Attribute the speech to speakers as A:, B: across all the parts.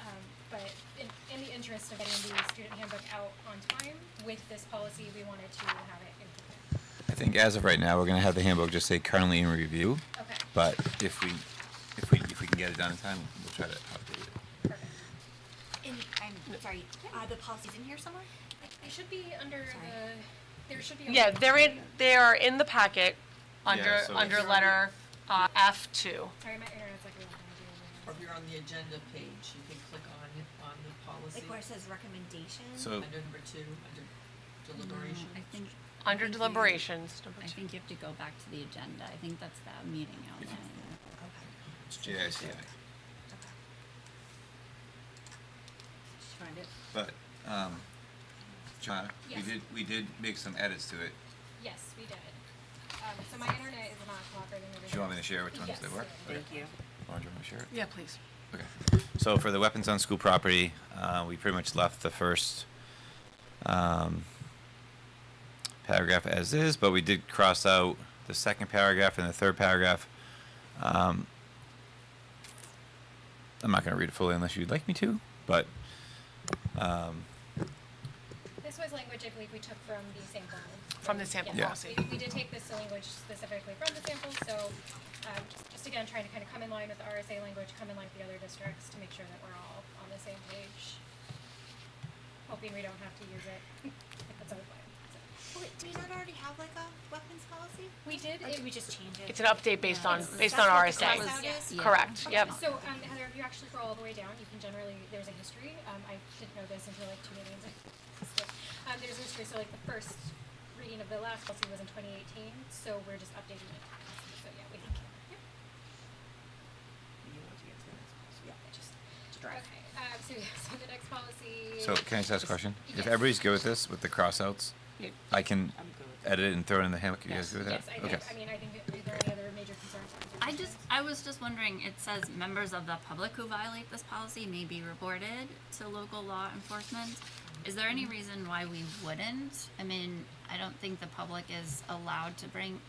A: Um, interest of getting the student handbook out on time, with this policy, we wanted to have it implemented.
B: I think as of right now, we're gonna have the handbook just say currently in review,
A: Okay,
B: but if we, if we, if we can get it done in time, we'll try to update it.
A: perfect.
C: In, I'm sorry, are the policies in here somewhere?
A: It should be under
C: Sorry.
A: the, there should be. a-
D: Yeah, they're in, they are in the packet under,
B: Yeah, so-
D: under letter uh, F2.
A: Sorry, my internet's like. really
E: Or if you're on the agenda page, you can click on it, on the policy,
C: Like where it says recommendations?
B: So-
E: under number two, under deliberation.
F: I think. I
D: Under
F: think you-
D: deliberations, number
F: I
D: two.
F: think you have to go back to the agenda. I think that's the meeting outline.
B: It's JICI.
F: Find it.
B: But, um, John, we
A: Yes.
B: did, we did make some edits to it.
A: Yes, we did. Um, so my internet is not cooperating. with
B: Do you want me to
A: yours.
B: share which ones they
A: Yes.
B: were? Okay.
F: you.
B: Lauren, do you want me to share it?
D: Yeah, please.
B: Okay. So for the weapons on school property, uh, we pretty much left the first um, paragraph as is, but we did cross out the second paragraph and the third paragraph. Um, I'm not going to read it fully unless you'd like me to, but um,
A: This was language I believe we took from the sample.
D: From the sample
A: Yeah.
D: policy.
A: We, we did take this language specifically from the sample, so, um, just, just again, trying to kind of come in line with the RSA language, come in line with the other districts to make sure that we're all on the same page. Hoping we don't have to use it. That's our plan, so.
C: Wait, do we not already have like a weapons policy?
A: We did,
C: Or
A: it,
C: did we just change it?
D: It's an update based on,
C: That's-
D: based
C: that's
D: on
C: what the
D: RSA.
C: cross-out is?
F: Yeah.
D: Correct, yep.
A: So, um, Heather, if you actually scroll all the way down, you can generally, there's a history, um, I didn't know this until like two meetings. So, Um, there's a history, so like the first reading of the last policy was in twenty eighteen, so we're just updating it. So, yeah, we think, yeah. Okay, um, so, yeah, so the next policy.
B: so can I just ask a question? If
A: Yes. Um,
B: everybody's good with this, with the crossouts, I can edit it and throw it in the handbook. You guys good with that?
A: Yes, I
B: okay.
A: think, I mean, I think that are there any other major concerns?
F: I just, I was just wondering, it says members of the public who violate this policy may be reported to local law enforcement. Is there any reason why we wouldn't? I mean, I don't think the public is allowed to bring,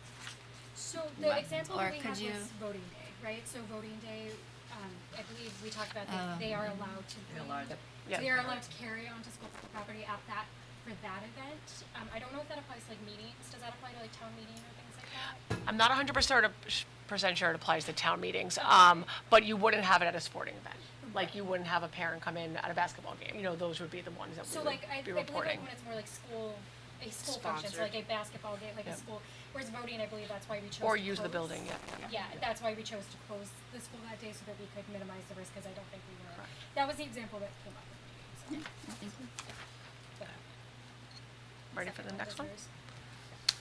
A: So the
F: What-
A: example
F: or
A: that we
F: could
A: had
F: you-
A: was voting day, right? So voting day, um, I believe we talked about
F: Oh.
A: that they are allowed to
E: They're
A: bring-
E: allowed to-
D: Yeah.
A: They are allowed to carry onto school property at that, for that event. Um, I don't know if that applies to like meetings, does that apply to like town meeting or things like that?
D: I'm not 100% percent sure it applies to town meetings, um, but you wouldn't have it at a sporting event. Like, you wouldn't have a parent come in at a basketball game. You know, those would be the ones that
A: So
D: we would
A: like, I, I
D: be
A: believe like
D: reporting.
A: when it's more like school, a school function, so like a basketball game, like a
D: Yep.
A: school, whereas voting, I believe that's why we chose
D: Or
A: to
D: use the
A: close.
D: building, yeah, yeah.
A: Yeah, that's why we chose to close the school that day so that we could minimize the risk, cause I don't think we were, that was the example that came up. so,
F: I think,
A: but-
D: Ready for the next one?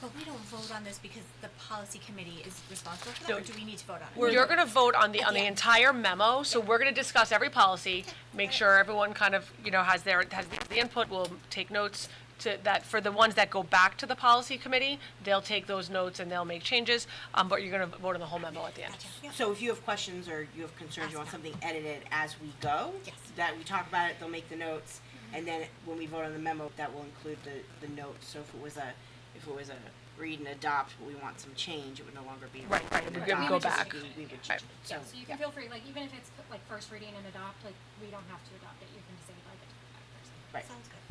C: But we don't vote on this because the policy committee is responsible for that, or do we need to vote on it?
D: You're gonna vote on the, on the
C: Yeah.
D: entire memo, so we're gonna discuss every policy, make sure everyone kind of, you know, has their, has the input, we'll take notes to, that, for the ones that go back to the policy committee, they'll take those notes and they'll make changes, um, but you're gonna vote on the whole memo at the end.
C: Gotcha.
G: So if you have questions or you have concerns, you want something edited as we go?
C: Yes.
G: That we talk about it, they'll make the notes, and then when we vote on the memo, that will include the, the notes. So if it was a, if it was a read and adopt, but we want some change, it would no longer be. a
D: Right,
G: read
D: right,
G: and
D: we could
G: adopt,
A: go
G: it's just
D: back.
G: we- We would
D: Right.
G: change it,
A: Yeah,
G: so.
A: so you can feel free, like, even if it's like first reading and adopt, like, we don't have to adopt it, you can just say like it.
G: Right,
C: Sounds good.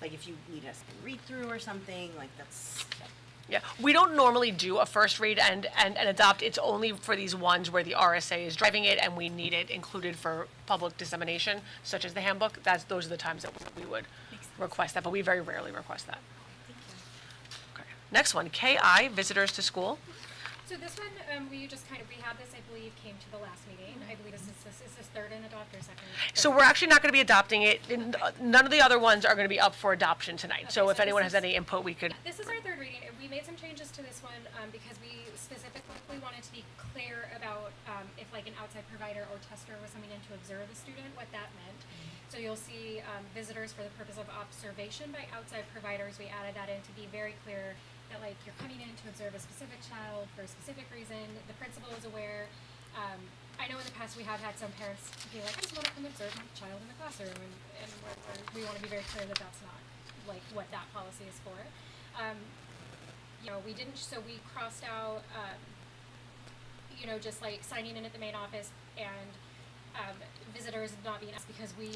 G: like if you need us to read through or something, like that's,
D: Yeah, we don't normally do a first read and, and, and adopt, it's only for these ones where the RSA is driving it and we need it included for public dissemination, such as the handbook, that's, those are the times that we would
C: Makes sense.
D: request that, but we very rarely request that.
C: Thank you.
D: Okay. Next one, KI, visitors to school.
A: So this one, um, we just kind of, we had this, I believe, came to the last meeting, I believe this is, this is this third and adopt or second?
D: So
A: Third.
D: we're actually not gonna be adopting it, and, uh, none of the other ones are gonna be up for adoption tonight, so
A: Okay,
D: if
A: so
D: anyone
A: this
D: has
A: is-
D: any input, we could.
A: This is our third reading, and we made some changes to this one, um, because we specifically wanted to be clear about, um, if like an outside provider or tester was coming in to observe a student, what that meant. So you'll see, um, visitors for the purpose of observation by outside providers, we added that in to be very clear that like you're coming in to observe a specific child for a specific reason, the principal is aware. Um, I know in the past we have had some parents be like, I just wanna come observe my child in the classroom, and, and we're, we're- we wanna be very clear that that's not like what that policy is for. Um, you know, we didn't, so we crossed out, um, you know, just like signing in at the main office and, um, visitors not being asked because we